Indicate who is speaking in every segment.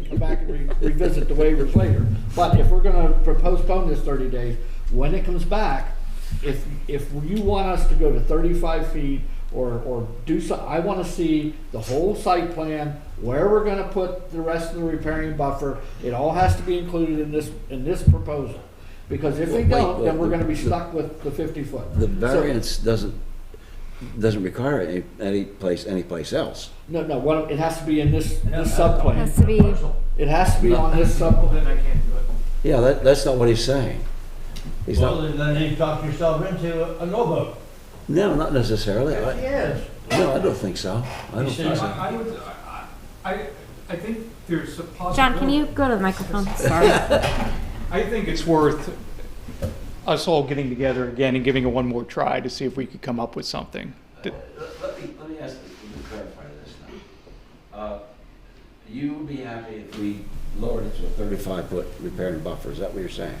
Speaker 1: can come back and re- revisit the waivers later. But if we're gonna postpone this thirty days, when it comes back, if, if you want us to go to thirty-five feet or, or do so, I wanna see the whole site plan, where we're gonna put the rest of the repairing buffer. It all has to be included in this, in this proposal. Because if we
Speaker 2: Well, wait,
Speaker 1: don't, then
Speaker 2: well,
Speaker 1: we're gonna be
Speaker 2: the-
Speaker 1: stuck with the fifty foot.
Speaker 2: The
Speaker 1: So-
Speaker 2: variance doesn't, doesn't require any, any place, any place else.
Speaker 1: No, no, what, it has to be in this,
Speaker 3: No,
Speaker 1: this
Speaker 3: no, no.
Speaker 1: subplan.
Speaker 4: Has to be,
Speaker 1: It has to be
Speaker 3: Not
Speaker 1: on this
Speaker 3: simple,
Speaker 1: sub,
Speaker 3: Then I can't do it.
Speaker 2: Yeah, that, that's not what he's saying. He's
Speaker 5: Well,
Speaker 2: not,
Speaker 5: then you talk yourself into a no vote.
Speaker 2: no, not necessarily. I-
Speaker 5: Yes.
Speaker 2: No, I don't think so. I don't
Speaker 5: You see,
Speaker 2: think so.
Speaker 3: I I would, I, I, I think there's a possibility.
Speaker 4: John, can you go to the microphone? Sorry.
Speaker 3: I think it's worth us all getting together again and giving it one more try to see if we could come up with something. Did-
Speaker 2: Let me, let me ask, let me clarify this now. Uh, You would be happy if we lowered it to a thirty-five foot repair and buffer, is that what you're saying?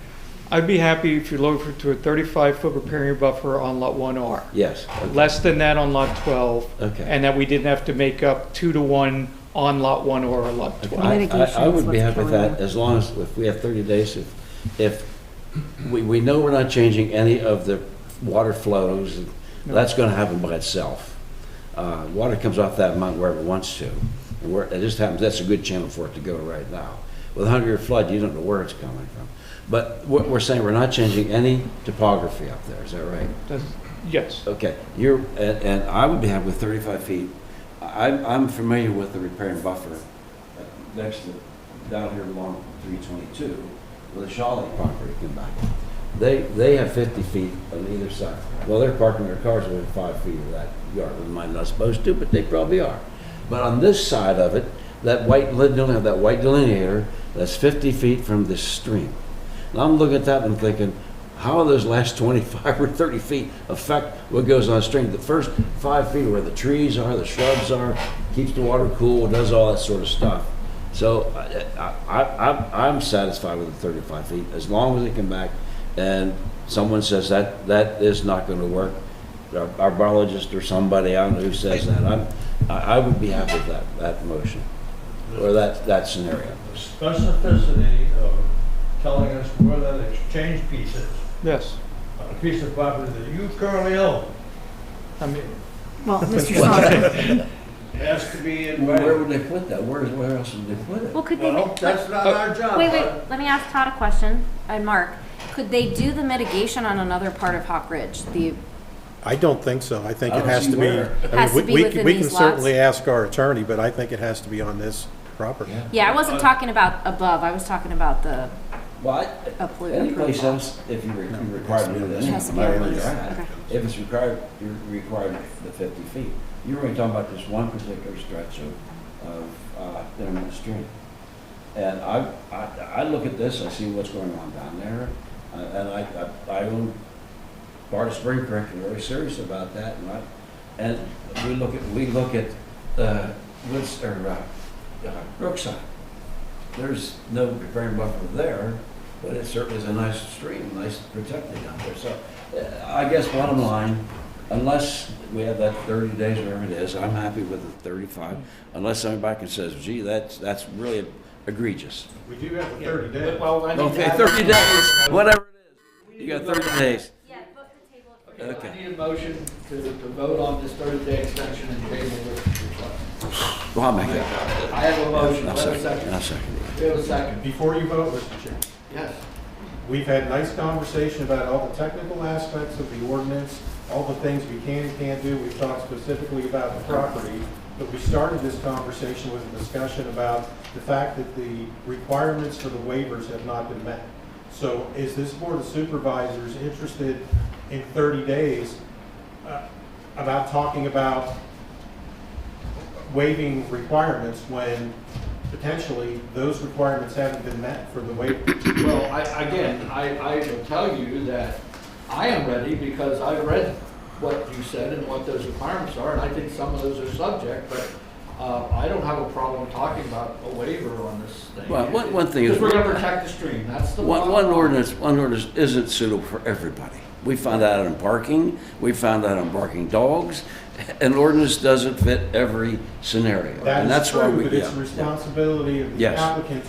Speaker 3: I'd be happy if you lowered it to a 35-foot riparian buffer on Lot 1R,
Speaker 2: Yes,
Speaker 3: less than that on Lot 12,
Speaker 2: okay.
Speaker 3: and that we didn't have to make up two to one on Lot 1 or Lot 12.
Speaker 2: I, I- I
Speaker 4: Mitigation is
Speaker 2: would be
Speaker 4: what's
Speaker 2: happy with
Speaker 4: going
Speaker 2: that,
Speaker 4: on.
Speaker 2: as long as, if we have thirty days, if, if, we, we know we're not changing any of the water flows, and
Speaker 3: No.
Speaker 2: that's gonna happen by itself. Uh, water comes off that mountain wherever it wants to, and where, it just happens, that's a good channel for it to go right now. With a hundred-year flood, you don't know where it's coming from. But what we're saying, we're not changing any topography up there, is that right?
Speaker 3: That's- Yes.
Speaker 2: Okay, you're, and, and I would be happy with thirty-five feet. I, I'm- I'm familiar with the repair and buffer uh, next to, down here along three twenty-two, where the Shawley property come back. They, they have fifty feet on either side. Well, they're parking their cars within five feet of that yard, we might not supposed to, but they probably are. But on this side of it, that white linear, that white delineator, that's fifty feet from the stream. And I'm looking at that and thinking, how are those last 25 or 30 feet affect what goes on stream? The first five feet where the trees are, the shrubs are, keeps the water cool, does all that sort of stuff. So I, I, I, I'm satisfied with the 35 feet as long as they come back and someone says that, that is not going to work. Our our biologist or somebody, I don't know who says that. I'm, I I would be happy with that, that motion or that, that scenario.
Speaker 5: Specificity of telling us where that exchange piece is,
Speaker 3: Yes.
Speaker 5: on a piece of property that you currently own,
Speaker 3: I mean,
Speaker 4: Well, Mr. Song,
Speaker 5: has to be in
Speaker 2: Where
Speaker 5: writing.
Speaker 2: would they put that? Where, where else would they put it?
Speaker 4: well, could they,
Speaker 5: Well,
Speaker 4: wait,
Speaker 5: that's not our job.
Speaker 4: Uh, wait, let me ask Todd a question, and Mark. Could they do the mitigation on another part of Hawk Ridge? The,
Speaker 6: I don't think so. I think
Speaker 2: I
Speaker 6: it
Speaker 2: don't
Speaker 6: has
Speaker 2: see
Speaker 6: to be.
Speaker 2: where.
Speaker 6: I mean,
Speaker 4: Has to
Speaker 6: we-
Speaker 4: be
Speaker 6: we can-
Speaker 4: within
Speaker 6: We can
Speaker 4: these lots.
Speaker 6: certainly ask our attorney, but I think it has to be on this property.
Speaker 4: yeah, I wasn't talking about above, I was talking about the
Speaker 2: Well,
Speaker 4: upload.
Speaker 2: Any place
Speaker 4: approval.
Speaker 2: else, if you re- you're required to do this,
Speaker 4: It has to
Speaker 2: no
Speaker 4: be
Speaker 2: matter
Speaker 4: at
Speaker 2: where
Speaker 4: least,
Speaker 2: you're at,
Speaker 4: okay.
Speaker 2: if it's required, you're required the 50 feet. You're only talking about this one particular stretch of, of uh, Internet Street. And I, I, I look at this, I see what's going on down there, uh, and I, I- I own part of Spring Creek, and very serious about that, and I, and we look at, we look at, uh, Woods, or, uh, uh, Brookside. There's no preparing buffer there, but it certainly is a nice stream, nice protected down there, so, uh, I guess bottom line, unless we have that thirty days, whatever it is, I'm happy with the thirty-five, unless somebody back and says, gee, that's, that's really egregious.
Speaker 5: We do have the thirty
Speaker 1: Well, I need to
Speaker 2: Okay,
Speaker 1: add-
Speaker 2: thirty days, whatever it is, you got thirty days.
Speaker 4: Yeah, book the table for
Speaker 2: Okay.
Speaker 1: I need a motion to, to vote on this thirty-day extension and table this request.
Speaker 2: Well, I'll make that.
Speaker 1: I have a motion,
Speaker 2: I'll
Speaker 1: I have a
Speaker 2: second, I'll
Speaker 1: second.
Speaker 2: second it.
Speaker 1: We have a second,
Speaker 7: Before you vote, Mr. Chairman,
Speaker 1: yes.
Speaker 7: we've had nice conversation about all the technical aspects of the ordinance, all the things we can and can't do. We've talked specifically about the property, but we started this conversation with a discussion about the fact that the requirements for the waivers have not been met. So is this Board of Supervisors interested in 30 days uh, about talking about waiving requirements when potentially those requirements haven't been met for the waiver?
Speaker 1: Well, I, again, I, I will tell you that I am ready because I read what you said and what those requirements are, and I think some of those are subject, but, uh, I don't have a problem talking about a waiver on this thing.
Speaker 2: Well, one- one thing is-
Speaker 1: Because we're gonna protect the stream, that's the.
Speaker 2: One,
Speaker 1: bottom
Speaker 2: one
Speaker 1: line.
Speaker 2: ordinance, one ordinance isn't suitable for everybody. We found that out in parking, we found that on barking dogs, an ordinance doesn't fit every scenario.
Speaker 7: That
Speaker 2: And
Speaker 7: is
Speaker 2: that's why
Speaker 7: true,
Speaker 2: we,
Speaker 7: but it's
Speaker 2: yeah,
Speaker 7: the
Speaker 2: yeah.
Speaker 7: responsibility of the
Speaker 2: Yes.
Speaker 7: applicant